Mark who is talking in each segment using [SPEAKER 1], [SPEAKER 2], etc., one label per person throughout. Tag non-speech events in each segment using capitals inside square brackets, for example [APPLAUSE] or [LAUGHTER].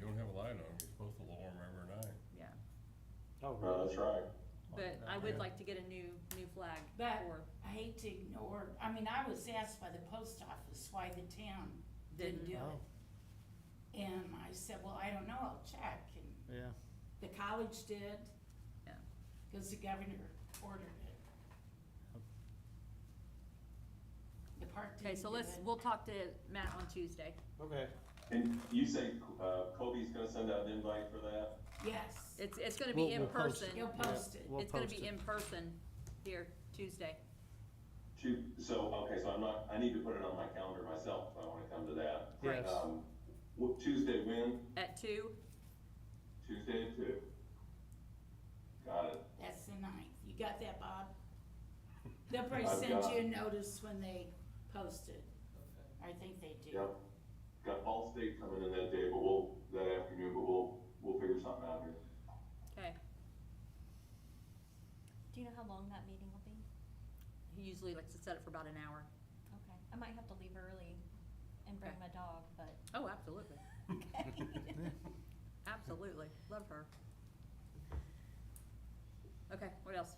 [SPEAKER 1] know, you're supposed to lower them every night.
[SPEAKER 2] yeah.
[SPEAKER 3] Oh,
[SPEAKER 4] Uh,
[SPEAKER 3] really?
[SPEAKER 4] that's right.
[SPEAKER 2] But I would like to get a new, new flag
[SPEAKER 5] But-
[SPEAKER 2] for,
[SPEAKER 5] I hate to ignore, I mean, I was asked by the post office why the town didn't
[SPEAKER 2] Didn't.
[SPEAKER 5] do
[SPEAKER 3] Oh,
[SPEAKER 5] it. And I said, well, I don't know, I'll check. And
[SPEAKER 3] yeah.
[SPEAKER 5] the college did.
[SPEAKER 2] Yeah.
[SPEAKER 5] Cause the governor ordered it. The park
[SPEAKER 2] okay,
[SPEAKER 5] didn't
[SPEAKER 2] so
[SPEAKER 5] do
[SPEAKER 2] let's,
[SPEAKER 5] it.
[SPEAKER 2] we'll talk to Matt on Tuesday.
[SPEAKER 3] Okay.
[SPEAKER 4] And you say, uh, Kobe's gonna send out an invite for that?
[SPEAKER 5] Yes,
[SPEAKER 2] It's, it's gonna
[SPEAKER 3] We'll-
[SPEAKER 2] be in
[SPEAKER 3] we'll post
[SPEAKER 2] person,
[SPEAKER 3] it.
[SPEAKER 5] you'll post it.
[SPEAKER 3] We'll
[SPEAKER 2] it's gonna
[SPEAKER 3] post
[SPEAKER 2] be
[SPEAKER 3] it.
[SPEAKER 2] in person here Tuesday.
[SPEAKER 4] Two, so, okay, so I'm not, I need to put it on my calendar myself if I wanna come to that.
[SPEAKER 3] Yes.
[SPEAKER 4] Um, what, Tuesday when?
[SPEAKER 3] Mm-hmm.
[SPEAKER 2] At two,
[SPEAKER 4] Tuesday at two. Got it.
[SPEAKER 5] That's the ninth. You got
[SPEAKER 4] [LAUGHS]
[SPEAKER 5] that, Bob? They'll probably
[SPEAKER 4] I've
[SPEAKER 5] send
[SPEAKER 4] got
[SPEAKER 5] you a
[SPEAKER 4] it.
[SPEAKER 5] notice when they post it. I think they do.
[SPEAKER 4] Yep. Got Ball State coming in that day, but we'll, that afternoon, but we'll, we'll figure something out here.
[SPEAKER 2] okay,
[SPEAKER 6] Do you know how long that meeting will be?
[SPEAKER 2] he usually likes to set it for about an hour.
[SPEAKER 6] Okay, I might have to leave early and bring
[SPEAKER 2] Okay.
[SPEAKER 6] my dog, but.
[SPEAKER 2] Oh, absolutely,
[SPEAKER 3] [LAUGHS]
[SPEAKER 6] Okay.
[SPEAKER 2] absolutely, love her. Okay, what else?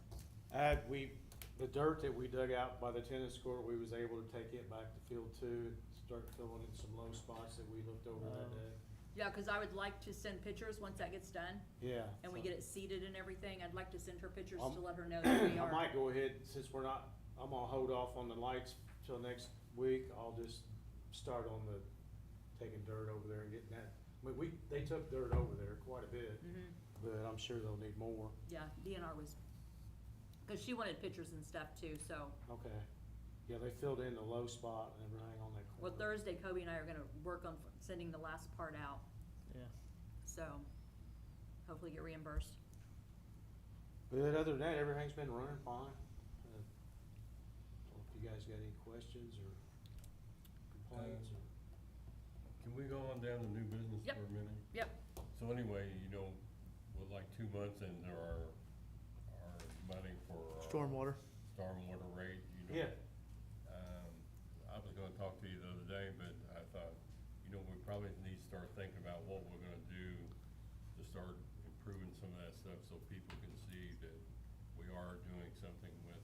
[SPEAKER 3] Uh, we, the dirt that we dug out by the tennis court, we was able to take it back to field two and start filling in some low spots that we looked over that
[SPEAKER 1] Oh.
[SPEAKER 3] day.
[SPEAKER 2] Yeah, cause I would like to send pictures once that gets done
[SPEAKER 3] Yeah.
[SPEAKER 2] and we
[SPEAKER 3] so- [CLEARS THROAT]
[SPEAKER 2] get it seeded and everything, I'd like to send her pictures
[SPEAKER 3] Um,
[SPEAKER 2] to let
[SPEAKER 3] [CLEARS THROAT]
[SPEAKER 2] her know that we
[SPEAKER 3] I
[SPEAKER 2] are,
[SPEAKER 3] might go ahead, since we're not, I'm gonna hold off on the lights till next week, I'll just start on the, taking dirt over there and getting that. I mean, we, they took dirt over there quite a bit,
[SPEAKER 2] Mhm.
[SPEAKER 3] but I'm sure they'll need more,
[SPEAKER 2] yeah, DNR was, cause she wanted pictures and stuff too, so.
[SPEAKER 3] okay. Yeah, they filled in the low spot and everything on that
[SPEAKER 2] Well,
[SPEAKER 3] corner.
[SPEAKER 2] Thursday, Kobe and I are gonna work on f- sending the last part out,
[SPEAKER 3] Yeah.
[SPEAKER 2] so hopefully get reimbursed.
[SPEAKER 3] But other than that, everything's been running fine. Uh, so If you guys got any questions or complaints or.
[SPEAKER 1] Can we go on down to new business
[SPEAKER 2] Yep.
[SPEAKER 1] for a minute?
[SPEAKER 2] Yep.
[SPEAKER 1] So anyway, you know, with like two months into our, our money for our.
[SPEAKER 7] Stormwater.
[SPEAKER 1] Stormwater rate, you know.
[SPEAKER 3] Yeah,
[SPEAKER 1] Um, I was gonna talk to you the other day, but I thought, you know, we probably need to start thinking about what we're gonna do to start improving some of that stuff so people can see that we are doing something with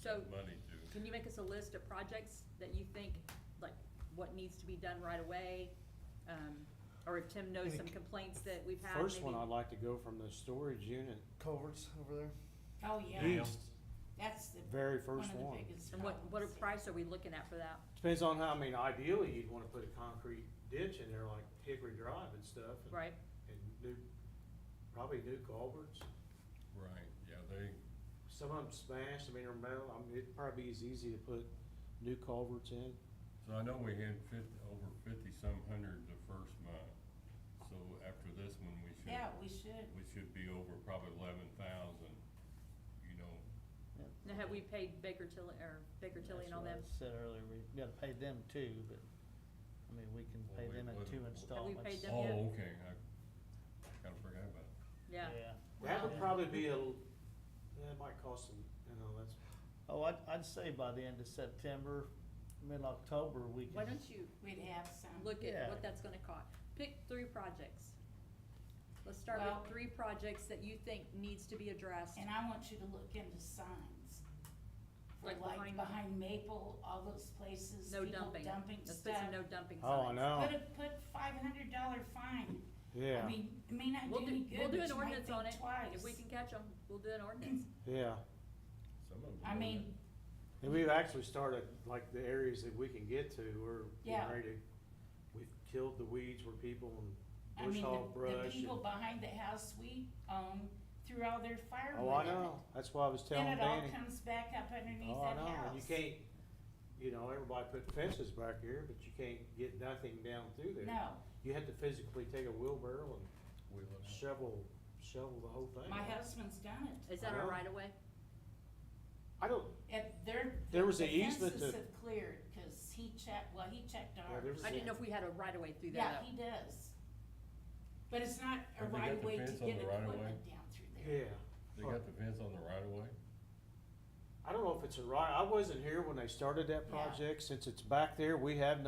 [SPEAKER 2] So,
[SPEAKER 1] money to.
[SPEAKER 2] can you make us a list of projects that you think, like, what needs to be done right away? Um, or if Tim knows some complaints that we've had,
[SPEAKER 3] first one
[SPEAKER 2] maybe-
[SPEAKER 3] I'd like to go from the storage unit
[SPEAKER 7] Culverts over there.
[SPEAKER 5] Oh, yeah,
[SPEAKER 1] Yeah.
[SPEAKER 3] east,
[SPEAKER 5] that's the,
[SPEAKER 3] very
[SPEAKER 5] one
[SPEAKER 3] first
[SPEAKER 5] of
[SPEAKER 3] one.
[SPEAKER 5] the biggest
[SPEAKER 2] And what, what a
[SPEAKER 5] problems.
[SPEAKER 2] price are we looking at for that?
[SPEAKER 3] Depends on how, I mean, ideally, you'd wanna put a concrete ditch in there like Hickory Drive and stuff. and-
[SPEAKER 2] Right,
[SPEAKER 3] And new, probably new culverts,
[SPEAKER 1] Right, yeah, they,
[SPEAKER 3] some of them smashed, I mean, they're metal, I mean, it'd probably be as easy to put new culverts in.
[SPEAKER 1] so I know we had fif- over fifty-some hundred the first month. So after this one, we should.
[SPEAKER 5] Yeah, we should.
[SPEAKER 1] We should be over probably eleven thousand, you know,
[SPEAKER 2] now have we paid Baker Tilly, or Baker Tilly and all them?
[SPEAKER 7] That's what I Said earlier, we gotta pay them too, but, I mean, we can
[SPEAKER 1] Well,
[SPEAKER 7] pay
[SPEAKER 1] we-
[SPEAKER 7] them
[SPEAKER 1] we-
[SPEAKER 7] in two
[SPEAKER 1] Have we
[SPEAKER 7] installments.
[SPEAKER 2] paid them? Yeah.
[SPEAKER 1] oh, okay, I kinda forgot about it.
[SPEAKER 2] Yeah,
[SPEAKER 3] That would
[SPEAKER 7] Wow.
[SPEAKER 3] probably be a, l- that might cost them, you know, that's,
[SPEAKER 7] Oh, I'd, I'd say by the end of September, mid-October, we
[SPEAKER 2] why
[SPEAKER 7] can,
[SPEAKER 2] don't you
[SPEAKER 5] We'd have some.
[SPEAKER 2] look at
[SPEAKER 7] Yeah.
[SPEAKER 2] what that's gonna cost. Pick three projects. Let's start with
[SPEAKER 5] Well-
[SPEAKER 2] three projects that you think needs to be addressed.
[SPEAKER 5] And I want you to look into signs. For
[SPEAKER 2] Like
[SPEAKER 5] like
[SPEAKER 2] behind-
[SPEAKER 5] behind Maple, all those places,
[SPEAKER 2] No
[SPEAKER 5] people
[SPEAKER 2] dumping.
[SPEAKER 5] dumping
[SPEAKER 2] Let's put
[SPEAKER 5] stuff.
[SPEAKER 2] some no dumping signs.
[SPEAKER 3] oh, I know,
[SPEAKER 5] Put a, put five hundred dollar fine. I
[SPEAKER 3] yeah,
[SPEAKER 5] mean, it may not
[SPEAKER 2] We'll
[SPEAKER 5] do any
[SPEAKER 2] do, we'll
[SPEAKER 5] good,
[SPEAKER 2] do
[SPEAKER 5] but
[SPEAKER 2] an
[SPEAKER 5] you might
[SPEAKER 2] ordinance on it.
[SPEAKER 5] think twice.
[SPEAKER 2] If we can catch them, we'll do an ordinance.
[SPEAKER 3] yeah.
[SPEAKER 1] Some of them.
[SPEAKER 5] I
[SPEAKER 1] don't
[SPEAKER 5] mean,
[SPEAKER 3] And we've actually started, like, the areas that we can get to, we're
[SPEAKER 5] Yeah.
[SPEAKER 3] getting ready to, we've killed the weeds where people
[SPEAKER 5] I
[SPEAKER 3] and bush
[SPEAKER 5] mean, the,
[SPEAKER 3] hog
[SPEAKER 5] the
[SPEAKER 3] brush and.
[SPEAKER 5] people behind the house we own threw all their firewood.
[SPEAKER 3] Oh, I
[SPEAKER 5] in it.
[SPEAKER 3] know, that's why I was
[SPEAKER 5] Then
[SPEAKER 3] telling
[SPEAKER 5] it all
[SPEAKER 3] Danny.
[SPEAKER 5] comes back up underneath
[SPEAKER 3] Oh, I
[SPEAKER 5] that
[SPEAKER 3] know, and you
[SPEAKER 5] house.
[SPEAKER 3] can't, you know, everybody put fences back here, but you can't get nothing down through there.
[SPEAKER 5] No.
[SPEAKER 3] You had to physically take a wheelbarrow and
[SPEAKER 1] Wheel it out.
[SPEAKER 3] shovel, shovel the whole thing.
[SPEAKER 5] My husband's done
[SPEAKER 2] Is that our
[SPEAKER 3] Well-
[SPEAKER 2] right of way?
[SPEAKER 3] I don't,
[SPEAKER 5] it. At their,
[SPEAKER 3] There
[SPEAKER 5] the
[SPEAKER 3] was a easement
[SPEAKER 5] fences
[SPEAKER 3] to-
[SPEAKER 5] have cleared, cause he checked, well, he checked
[SPEAKER 3] Yeah, there
[SPEAKER 5] ours.
[SPEAKER 3] was
[SPEAKER 2] I didn't know if we had a right of way through
[SPEAKER 5] Yeah,
[SPEAKER 2] there
[SPEAKER 5] he does. But it's not a
[SPEAKER 1] Have they got
[SPEAKER 5] right of
[SPEAKER 1] the
[SPEAKER 5] way to
[SPEAKER 1] fence
[SPEAKER 5] get
[SPEAKER 1] on the right of way?
[SPEAKER 5] equipment down through there.
[SPEAKER 3] yeah,
[SPEAKER 1] They got the fence on the right of way?
[SPEAKER 3] I don't know if it's a right, I wasn't here when they started that
[SPEAKER 5] Yeah.
[SPEAKER 3] project, since it's back there, we have